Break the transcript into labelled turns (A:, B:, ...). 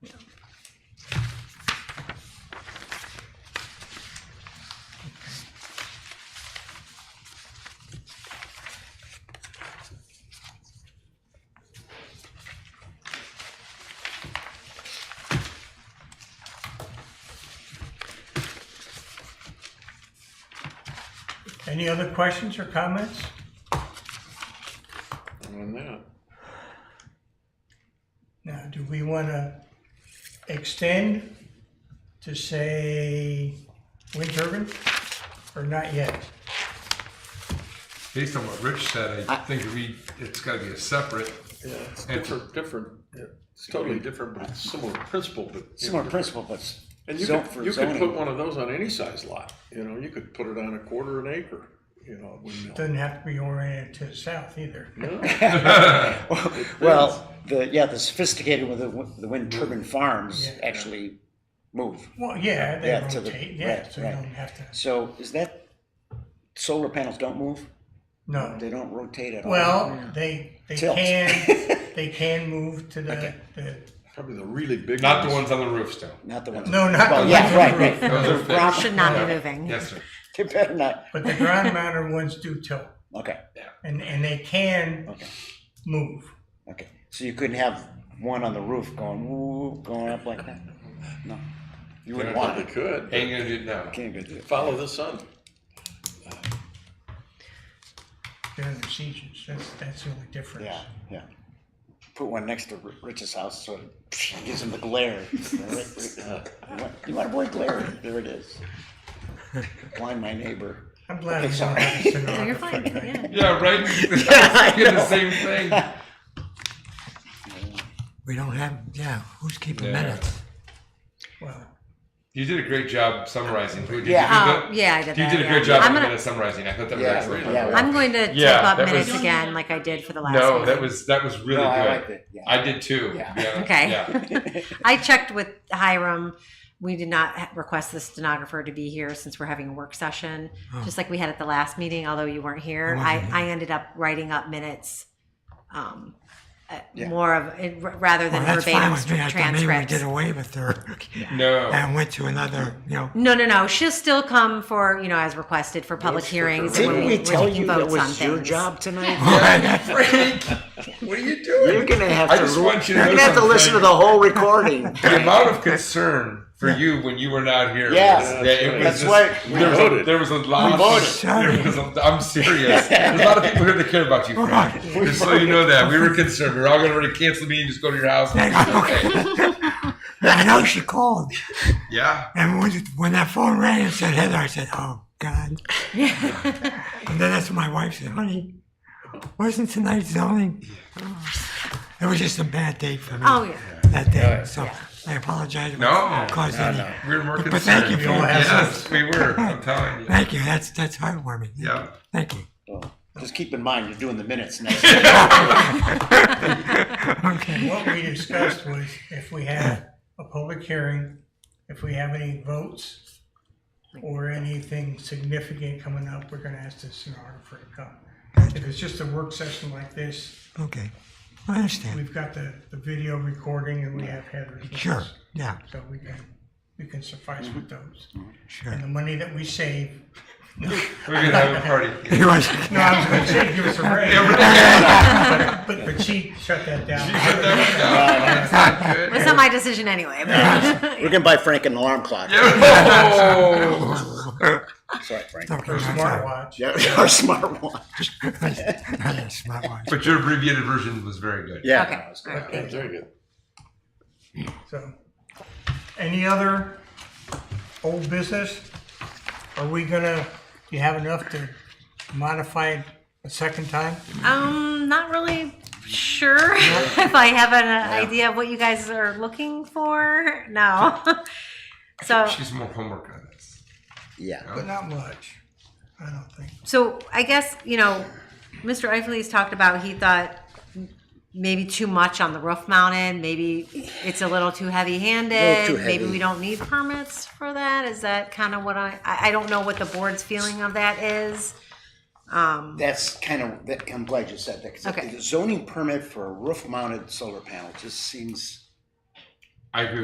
A: Any other questions or comments?
B: on that.
A: Now, do we want to extend to say wind turbine or not yet?
C: Based on what Rich said, I think we, it's gotta be a separate,
B: Yeah, it's
C: And-
B: different, different, it's totally different, but it's similar principle, but. you know,
D: Similar
B: different.
D: principle, but s-
B: And you
D: zone
B: could,
D: for
B: you could put
D: zoning.
B: one of those on any size lot, you know, you could put it on a quarter an acre, you know, a windmill.
A: Doesn't have to be oriented to the south either.
B: No,
D: Well, the, yeah, the sophisticated with the, wi- the wind turbine farms
A: Yeah.
D: actually move.
A: Well, yeah, they
D: Yeah, to the-
A: rotate, yeah,
D: right,
A: so you
D: right.
A: don't have to,
D: So is that, solar panels don't move?
A: no.
D: They don't rotate at all?
A: Well, they, they
D: Tilt.
A: can, they can move to the,
D: Okay.
A: the,
B: probably the really big.
C: not the ones on the roofs though.
D: Not the ones.
A: no, not the
D: Well,
A: ones
D: yeah,
A: on the
D: right,
A: roof.
D: right.
C: Those are
D: Round-
C: fixed.
E: Should not be moving.
C: Yes, sir.
D: They better not,
A: But the ground mounted ones do tilt
D: okay,
A: and, and they can
D: okay,
A: move.
D: okay. So you couldn't have one on the roof going, woo, going up like that? No, you wouldn't want
B: Probably
D: it.
B: could, but
C: Ain't gonna do it now.
D: Can't go do it.
B: follow the sun.
A: They're under siege, that's, that's the only difference.
D: Yeah, yeah. Put one next to Ri- Rich's house, so it gives him the glare. uh, You want to avoid glare, there it is. Blind my neighbor.
A: I'm glad it's not
D: Sorry.
A: a
E: No, you're
A: stenographer.
E: fine.
C: Yeah,
E: Yeah.
C: right?
D: I
C: Get the
D: know.
C: same thing.
F: We don't have, yeah, who's keeping
C: Yeah.
F: minutes?
A: Well,
C: You did a great job summarizing. Did you do
D: Yeah.
C: that?
E: Oh, yeah, I did
C: You
E: that,
C: did a
E: yeah.
C: great job
E: I'm
C: of
E: gonna-
C: minute summarizing. I thought that was
D: Yeah,
C: excellent.
D: yeah, yeah.
E: I'm going to tip
C: Yeah,
E: up
C: that was-
E: minutes again, like I did for the last
C: No,
E: one.
C: that was that was really
D: No, I
C: good.
D: liked it, yeah.
C: I did too.
D: Yeah.
C: to be honest.
E: Okay.
C: Yeah.
E: I checked with Hiram. We did not ha- request the stenographer to be here since we're having a work session, just like we had at the last meeting, although you weren't here. I,
F: I Oh. wasn't
E: I ended up writing up minutes um, uh,
D: Yeah.
E: more of it, r- rather
F: Well,
E: than
F: that's fine
E: verbatim
F: with me. I thought maybe we
E: transcripts.
F: did away with her
C: No.
F: and went to another, you know,
E: No, no, no. She'll still come for, you know, as requested for public
B: Votes for
E: hearings.
B: her.
E: and
D: Didn't
E: when
D: we
E: when
D: tell you that
E: votes on
D: was your
E: things.
D: job tonight?
C: Yeah, Frank, what are you doing?
D: You're gonna have
C: I
D: to,
C: just
D: ru-
C: want you
D: you're
C: to know
D: gonna have to
C: something.
D: listen to the whole recording.
C: the amount of concern for you when you were not here.
D: Yeah.
C: was-
B: Yeah,
C: that it was
D: that's
C: just-
D: right. We
C: there, was a,
B: voted.
C: there was a lot.
D: We
C: of-
F: voted.
C: there was a- I'm serious. There's a lot of people here that care about you. Frank. Just so you know that we were concerned. We were all going to already cancel the meeting. Just go to your house.
F: I know she called.
C: Yeah.
F: And when, when that phone rang and said Heather, I said, oh, God. and then that's when my wife said, honey, wasn't tonight zoning? It was just a bad day for me
E: Oh, yeah.
F: that day. So I apologize. if I
C: No.
F: Caused
C: No,
F: any.
C: no. We were more
F: But
C: concerned.
F: thank you for-
C: Yes, we were. I'm telling you.
F: Thank you. That's, that's heartwarming.
C: Yeah.
F: Thank you.
D: Just keep in mind, you're doing the minutes next.
F: Okay.
A: what we discussed was if we have a public hearing, if we have any votes or anything significant coming up, we're gonna ask the stenographer to come. If it's just a work session like this,
F: Okay. I understand.
A: we've got the, the video recording and we have Heather's. notes.
F: Sure. Yeah.
A: So we can, we can suffice with those.
F: Sure.
A: And the money that we save,
C: We're going to have a party.
F: He was.
A: no, I was gonna say give us a raise, but, but but she shut that down.
C: That's not good.
E: It's not my decision anyway. but-
D: We're gonna buy Frank an alarm clock.
C: Oh.
D: Sorry, Frank.
F: Okay,
A: Her
F: that's all right.
A: smartwatch.
D: Yeah, our smartwatch.
F: I had a smartwatch.
C: But your abbreviated version was very good.
D: Yeah.
E: Okay. All right.
B: Yeah, Very good.
A: So, any other old business? Are we gonna, you have enough to modify it a second time?
E: Um, not really sure if I have an uh, idea of what you guys are looking for. No. so,
C: She's more homework on this.
D: Yeah.
A: But not much, I don't think.
E: so I guess you know, Mr. Eifley's talked about he thought maybe too much on the roof mounted. Maybe it's a little too heavy-handed.
D: too heavy.
E: Maybe we don't need permits for that. Is that kind of what I? I I don't know what the board's feeling of that is.
D: That's kind of, that, I'm glad you said that,
E: Okay.
D: because the zoning permit for a roof-mounted solar panel just seems
C: I agree